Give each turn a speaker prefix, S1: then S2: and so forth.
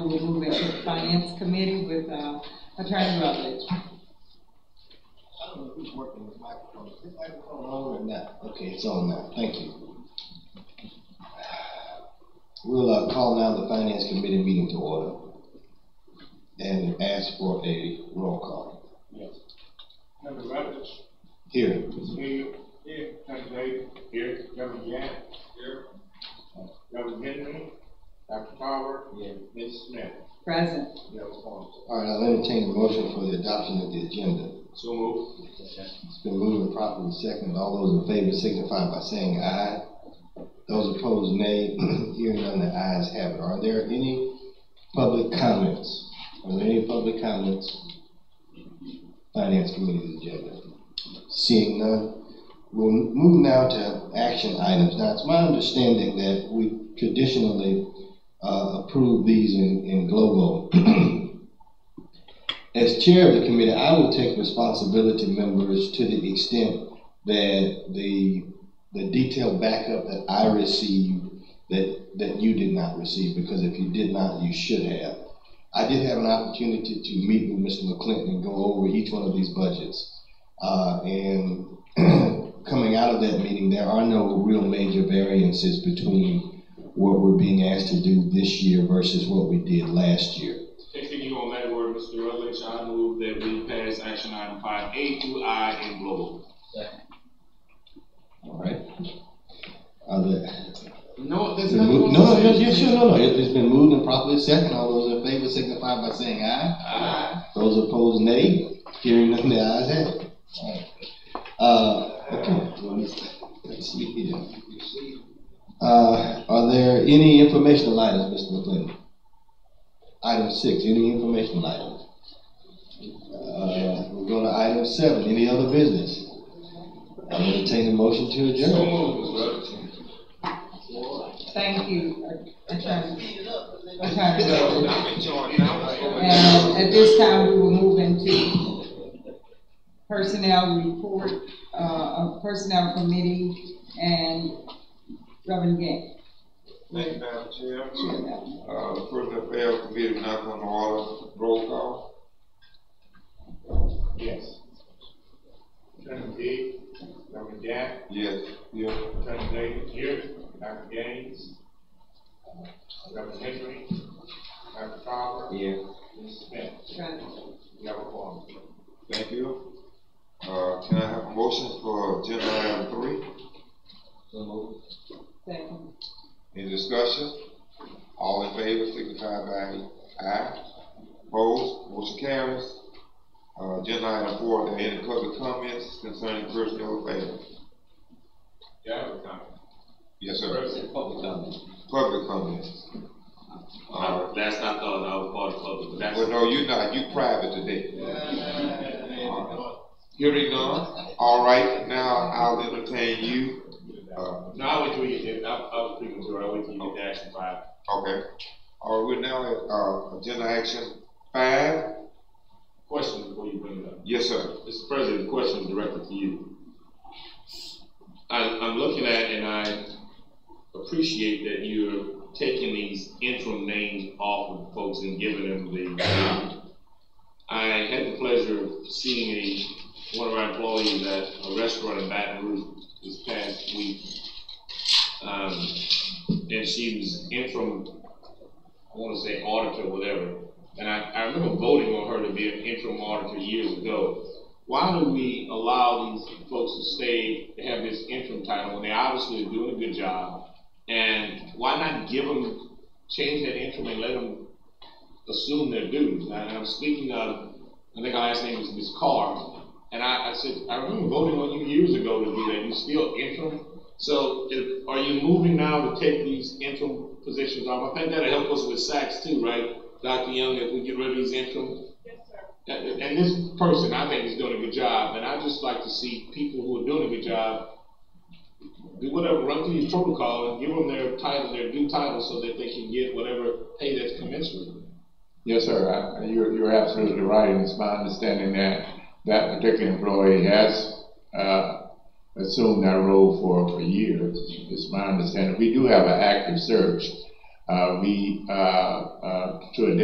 S1: with Finance Committee with uh, Attorney Rutledge.
S2: I don't know who's working this microphone. Is this microphone on or not? Okay, it's on now. Thank you. We'll uh, call now the Finance Committee meeting to order and ask for a roll call.
S3: Yes. Member Rutledge,
S2: Here,
S3: Ms. Hill. Here. Member Davis. Here. Member Yang. Here. Member Henry. Dr. Power. Yes. Ms. Smith.
S1: Present.
S3: Yes, Paul.
S2: all right, I'll entertain a motion for the adoption of the agenda.
S3: So moved.
S2: It's been moved and properly seconded. All those in favor signify by saying aye. Those opposed, nay. Hearing none, the ayes have it. Are there any public comments? Are there any public comments? Finance Committee's agenda. Seeing none, we'll move now to action items. Now, it's my understanding that we traditionally uh, approve these in, in global. As chair of the committee, I will take responsibility, members, to the extent that the, the detailed backup that I received, that, that you did not receive, because if you did not, you should have. I did have an opportunity to meet with Mr. McClinton and go over each one of these budgets. Uh, and coming out of that meeting, there are no real major variances between what we're being asked to do this year versus what we did last year.
S4: Continue on that word, Mr. Rutledge, I move that we pass action item five A through I in global.
S2: All right. Are there-
S4: No, there's
S2: No, no, no, yes, sure, no, no, It- it's been moved and properly second, all those in favor signify by saying aye.
S4: Aye.
S2: Those opposed, nay, hearing none, the ayes have it. All right. Uh, okay, well, let's, let's see here. Uh, are there any informational items, Mr. McLean? Item six, any informational items? Uh, we're going to item seven, any other business? I'll entertain a motion to adjourn.
S4: So moved, Mr. Rutledge.
S1: Thank you, uh, Attorney. Attorney
S4: No,
S1: Rutledge.
S4: I'm in charge now. I'm going down.
S1: And at this time, we will move into personnel report, uh, of personnel committee and Reverend Gann.
S5: Thank you, Madam Chair.
S1: Chair now.
S5: Uh, Prison Affairs Committee will not come to order, roll call.
S3: Yes. Attorney Big. Member Yang.
S5: Yes, yes,
S3: Attorney Davis. Here. Dr. Gaines. Member Henry. Dr. Power. Yes. Ms. Smith.
S1: Present.
S3: Yes, Paul.
S5: thank you. Uh, can I have a motion for agenda item three?
S1: Second.
S5: Any discussion? All in favor, signify by aye. Opposed, motion carries. Uh, agenda item four, are there any public comments concerning personnel affairs?
S3: Yeah, I have a comment.
S5: Yes, sir.
S3: President,
S5: Public comments. Uh,
S4: Uh, Last I thought, I was part of public, but that's.
S5: well, no, you not, you private today.
S3: No,
S5: Hearing none, all right, now I'll entertain you. Uh,
S3: I would do it, I, I was thinking, Joe, I would do it, that's five.
S5: okay, all right, we're now at, uh, agenda action five,
S4: Question before you bring it up.
S5: yes, sir.
S4: Mr. President, question directed to you. I, I'm looking at, and I appreciate that you're taking these interim names off of folks and giving them the. I had the pleasure of seeing a, one of our employees at a restaurant in Baton Rouge this past week. Um, and she was interim, I wanna say auditor, whatever. And I, I remember voting on her to be an interim auditor years ago why do we allow these folks to stay, to have this interim title, when they obviously are doing a good job? And why not give them, change that interim and let them assume their duties? And I'm speaking of, I think our last name is Ms. Carr, and I, I said, I remember voting on you years ago to do that, you still interim? So if, are you moving now to take these interim positions off? I think that'll help us with SACs too, right? Dr. Young, if we get rid of these interim and and this person, I think, is doing a good job, and I just like to see people who are doing a good job do whatever, run through your protocol and give them their title, their due title, so that they can get whatever pay that's commensurate.
S6: Yes, sir, I- you're, you're absolutely right, and it's my understanding that that particular employee has, uh, assumed that role for, for years. It's my understanding, we do have an active search. Uh, we, uh, uh, to a